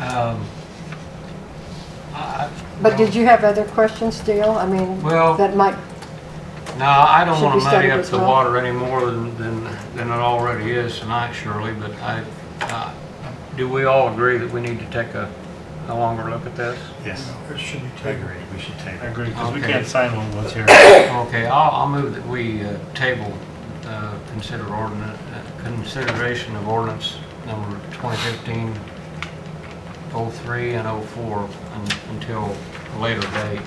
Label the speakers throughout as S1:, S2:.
S1: Um, I- I-
S2: But did you have other questions, Dale? I mean,
S1: Well-
S2: that might,
S1: No, I don't
S2: Should
S1: want
S2: we
S1: to muddy
S2: study
S1: up
S2: this
S1: the
S2: well?
S1: water any more than, than, than it already is tonight, Shirley, but I, uh, do we all agree that we need to take a, a longer look at this?
S3: Yes,
S4: Or should we
S3: I
S4: take?
S3: agree, we should take
S4: I
S3: it.
S4: agree,
S3: Because we
S1: Okay.
S3: can't sign one with here.
S1: Okay, I'll, I'll move that we uh, table, uh, consider ordinance, uh, consideration of ordinance number 2015-03 and 04 un- until a later date,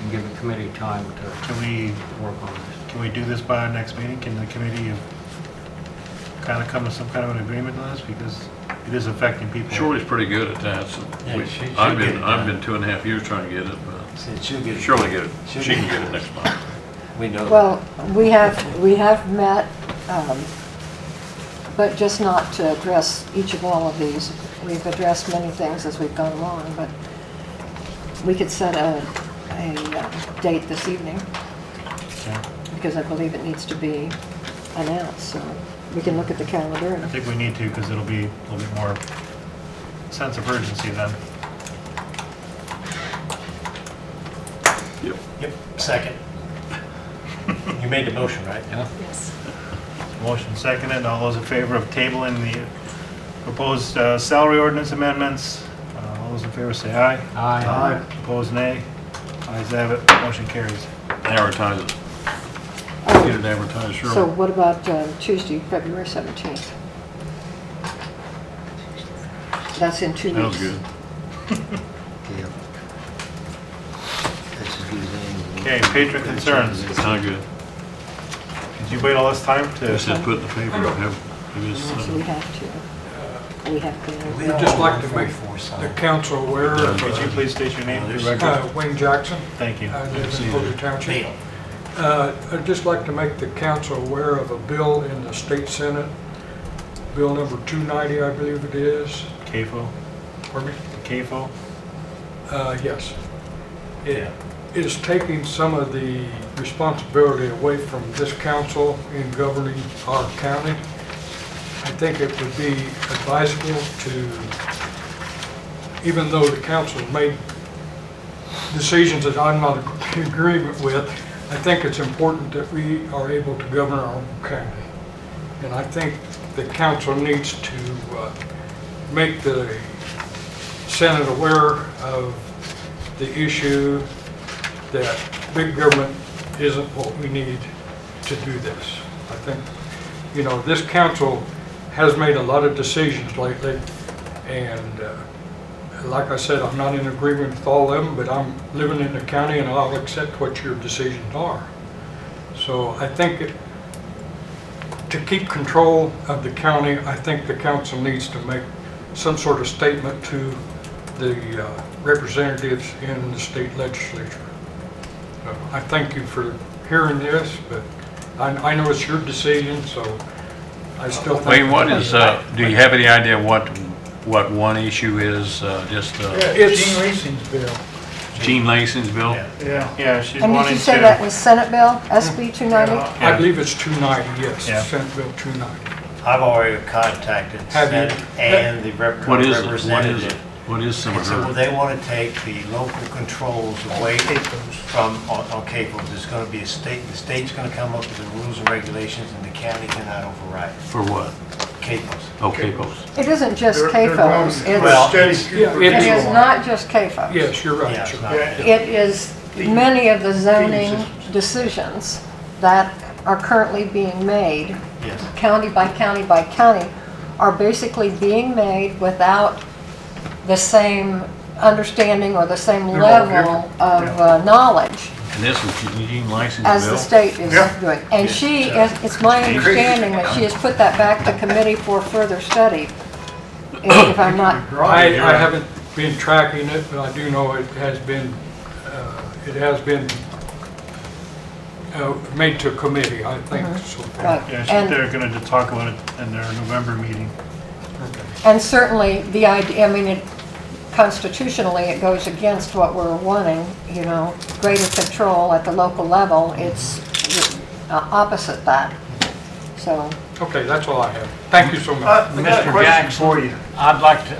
S1: and give the committee time to
S3: Can we,
S1: work on this.
S3: can we do this by our next meeting? Can the committee kind of come to some kind of an agreement on this? Because it is affecting people.
S5: Shirley's pretty good at that, so
S3: Yeah,
S5: we-
S3: she- she'll
S5: I've
S3: get it
S5: been, I've
S3: done.
S5: been two and a half years trying to get it, but
S6: Said she'll get it.
S5: Shirley get it,
S6: She'll
S5: she
S6: get
S5: can
S6: it.
S5: get it next month.
S6: We know.
S2: well, we have, we have met, um, but just not to address each of all of these. We've addressed many things as we've gone along, but we could set a, a uh, date this evening,
S3: Okay.
S2: because I believe it needs to be announced, so we can look at the calendar
S3: I
S2: and
S3: think we need to because it'll be a little bit more sense of urgency then.
S5: Yep.
S4: Yep, second. You made the motion, right?
S7: Yes.
S3: Motion seconded, all those in favor of tabling the proposed uh, salary ordinance amendments? Uh, All those in favor say aye.
S1: Aye.
S3: Opposed, nay. Ayes have it, motion carries.
S5: Advertise it, get
S2: Oh,
S5: it advertised,
S2: So
S5: Shirley.
S2: what about uh, Tuesday, February 17th? That's in two weeks.
S5: That was good.
S6: Yeah. That's as good as anything.
S3: Okay, patron concerns.
S5: It's not good.
S3: Did you wait all this time
S5: Just
S3: to?
S5: said put it in the paper, have, it is,
S2: Yes, we
S5: uh,
S2: have to. We have
S4: We
S2: to.
S4: don't
S8: just like
S4: want
S8: to make
S4: 44 sign.
S8: The council aware of
S3: Could you please state your name for the record?
S8: uh, Wayne Jackson,
S3: Thank you.
S8: I live in Boulder Township.
S4: Deal.
S8: Uh, I'd just like to make the council aware of a bill in the state senate, bill number 290, I believe it is,
S3: CAFO,
S8: pardon me?
S3: CAFO,
S8: Uh, Yes.
S4: Yeah.
S8: It is taking some of the responsibility away from this council in governing our county. I think it would be advisable to, even though the council made decisions that I'm not in agreement with, I think it's important that we are able to govern our own county. And I think the council needs to uh, make the Senate aware of the issue that big government isn't what we need to do this. I think, you know, this council has made a lot of decisions lately, and uh, like I said, I'm not in agreement with all of them, but I'm living in the county and I'll accept what your decisions are. So I think it- to keep control of the county, I think the council needs to make some sort of statement to the uh, representatives in the state legislature. So I thank you for hearing this, but I I know it's your decision, so I still think...
S5: Wayne, what is, uh, do you have any idea what, what one issue is, uh, just, uh,
S8: It's-
S4: Gene Lacy's bill.
S5: Gene Lacy's bill?
S3: Yeah.
S4: Yeah.
S3: Yeah, she's
S2: And did
S3: wanting
S2: you say that
S3: to,
S2: was Senate Bill, SB 290?
S8: I believe it's 290, yes,
S3: Yeah.
S8: Senate Bill 290.
S4: I've already contacted
S8: Have you-
S4: Senate and the rep-
S5: What is it? What is it?
S4: representative.
S5: What is some
S4: And
S5: of
S4: so
S5: her?
S4: they want to take the local controls away from, oh, on on CAFOs. It's going to be a state, the state's going to come up with the rules and regulations and the county cannot override
S5: For what?
S4: CAFOs.
S5: Oh, CAFOs.
S2: It isn't just CAFOs.
S4: Well,
S2: It's-
S4: it's-
S8: Yeah,
S2: It
S8: it
S2: is
S8: is.
S2: not just CAFOs.
S8: Yes, you're
S4: yeah,
S8: right.
S4: it's
S8: sir.
S4: not-
S2: It is many of the zoning decisions that are currently being made,
S4: Yes.
S2: county by county by county, are basically being made without the same understanding or the same level of uh, knowledge
S5: And this is Gene Lacy's bill?
S2: as the state is doing. And she, is it's my understanding that she has put that back to committee for further study, if if I'm not,
S8: I, I haven't been tracking it, but I do know it has been, uh, it has been uh, made to committee, I think,
S2: Uh-huh.
S8: so far.
S2: right.
S3: yeah, she-
S2: And-
S3: they're going to talk about it in their November meeting.
S2: And certainly, the idea, I mean, it- constitutionally, it goes against what we're wanting, you know, greater control at the local level, it's uh, opposite that. So,
S8: Okay, that's all I have. Thank you so much.
S4: Uh, I got a
S1: Mr.
S4: question
S1: Jackson,
S4: for you.
S1: I'd like to,